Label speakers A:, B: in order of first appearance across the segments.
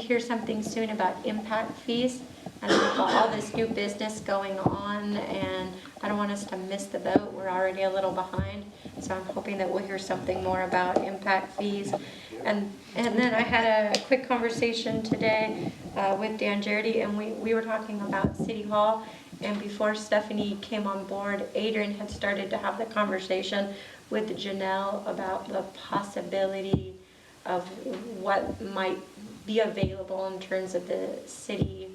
A: hear something soon about impact fees. And we've got all this new business going on, and I don't want us to miss the boat. We're already a little behind. So I'm hoping that we'll hear something more about impact fees. And, and then I had a quick conversation today uh, with Dan Jardy, and we, we were talking about City Hall. And before Stephanie came on board, Adrian had started to have the conversation with Janelle about the possibility of what might be available in terms of the city,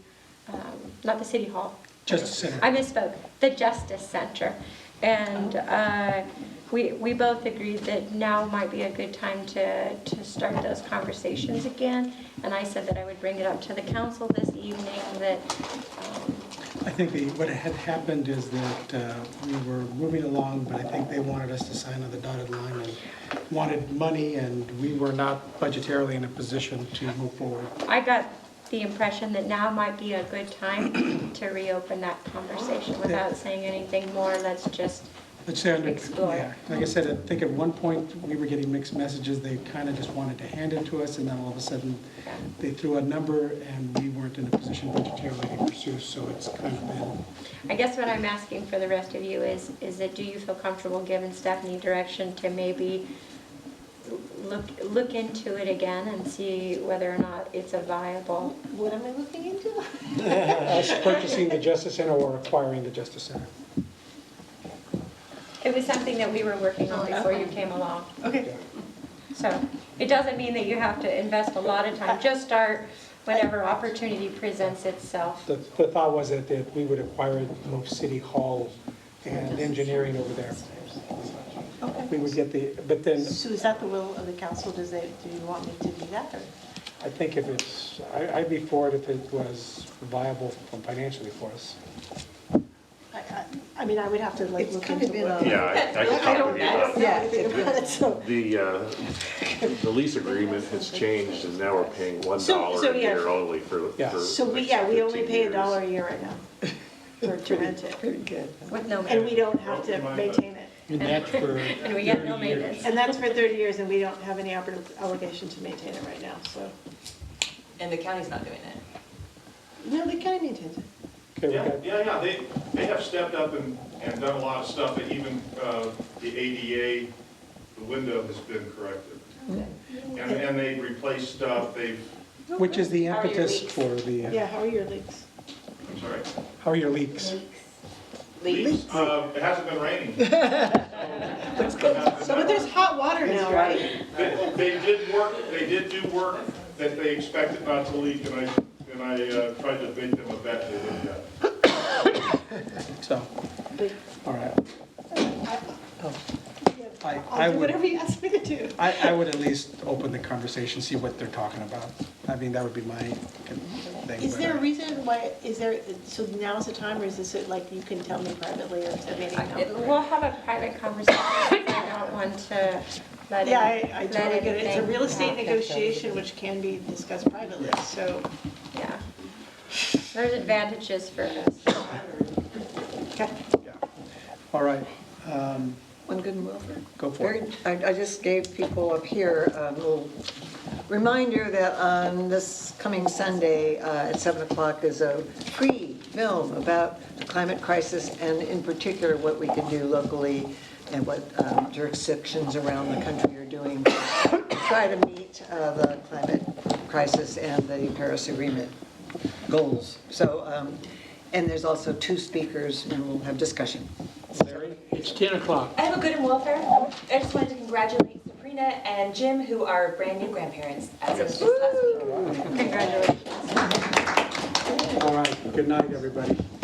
A: um, not the city hall.
B: Justice Center.
A: I misspoke, the Justice Center. And uh, we, we both agreed that now might be a good time to, to start those conversations again. And I said that I would bring it up to the council this evening, that, um,
B: I think the, what had happened is that uh, we were moving along, but I think they wanted us to sign on the dotted line and wanted money, and we were not budgetarily in a position to move forward.
A: I got the impression that now might be a good time to reopen that conversation without saying anything more. Let's just
B: Let's say, under-
A: Explore.
B: yeah, like I said, I think at one point, we were getting mixed messages, they kind of just wanted to hand it to us, and then all of a sudden,
A: um,
B: they threw a number, and we weren't in a position budgetarily to pursue, so it's kind of been,
A: I guess what I'm asking for the rest of you is, is that do you feel comfortable giving Stephanie direction to maybe look, look into it again and see whether or not it's a viable?
C: What am I looking into?
B: us purchasing the Justice Center or acquiring the Justice Center.
A: It was something that we were working on
C: Oh,
A: before you came along.
C: Okay.
A: So it doesn't mean that you have to invest a lot of time. Just start whenever opportunity presents itself.
B: The, the thought was that, that we would acquire it, move City Hall and engineering over there. We
C: Okay.
B: would get the, but then,
C: So is that the will of the council? Does they, do you want me to do that or?
B: I think if it's, I, I'd be for it if it was viable financially for us.
C: I, I, I mean, I would have to like
D: It's
C: look
D: kind of
C: into
D: been
C: what.
D: a-
E: Yeah, I- I can
C: I
E: talk
C: don't
E: with you about
C: know
E: it.
C: anything about it, so.
E: The, uh, the lease agreement has changed, and now we're paying one
C: So- so
E: dollar a
C: yeah.
E: year only for,
B: Yeah.
E: for.
C: So we,
E: next
C: yeah, we only
E: 15
C: pay a
E: years.
C: dollar a year right now for to rent it.
B: good.
A: With no
C: And
A: maintenance.
C: we don't have to maintain it.
B: And that's for
A: And we get no
B: 30 years.
A: maintenance.
C: And that's for 30 years and we don't have any obli- obligation to maintain it right now, so.
F: And the county's not doing it.
C: No, the county maintains it.
B: Okay, we
G: Yeah,
B: got-
G: yeah, yeah, they, they have stepped up and, and done a lot of stuff, and even, uh, the ADA, the window has been corrected. And, and they replaced stuff, they've,
B: Which is the
A: How are your
B: impetus
A: leaks?
B: for the,
C: Yeah,
B: uh,
C: how are your leaks?
G: I'm sorry.
B: how are your leaks?
G: Leaks, uh, it hasn't been raining.
C: So, but there's hot water now, right?
G: They, they did work, they did do work that they expected not to leak, and I, and I uh, tried to make them a bet they did that.
B: So,
C: But-
B: all right.
C: Oh.
B: I, I
C: I'll do
B: would,
C: whatever you ask me to do.
B: I, I would at least open the conversation, see what they're talking about. I mean, that would be my thing.
C: Is
B: but-
C: there a reason why, is there, so now's the time, or is this like you can tell me privately or to me now?
A: We'll have a private conversation. I don't want to let it.
C: Yeah, I, I totally
A: let
C: get it. It's a
A: anything
C: real estate
A: happen.
C: negotiation which can be discussed privately, so.
A: Yeah. There's advantages for us.
C: Okay.
B: All right, um,
D: One good and Wilford.
B: go for
D: Very-
B: it.
D: I I just gave people up here a little reminder that on this coming Sunday uh, at 7 o'clock is a free film about the climate crisis and in particular what we can do locally and what um, jurisdictions around the country are doing to try to meet uh, the climate crisis and the Paris Agreement goals. So, um, and there's also two speakers and we'll have discussion.
B: It's 10 o'clock.
F: I have a good and welfare. I just wanted to congratulate Sabrina and Jim, who are brand new grandparents as of just last week.
A: Congratulations.
B: All right, good night, everybody.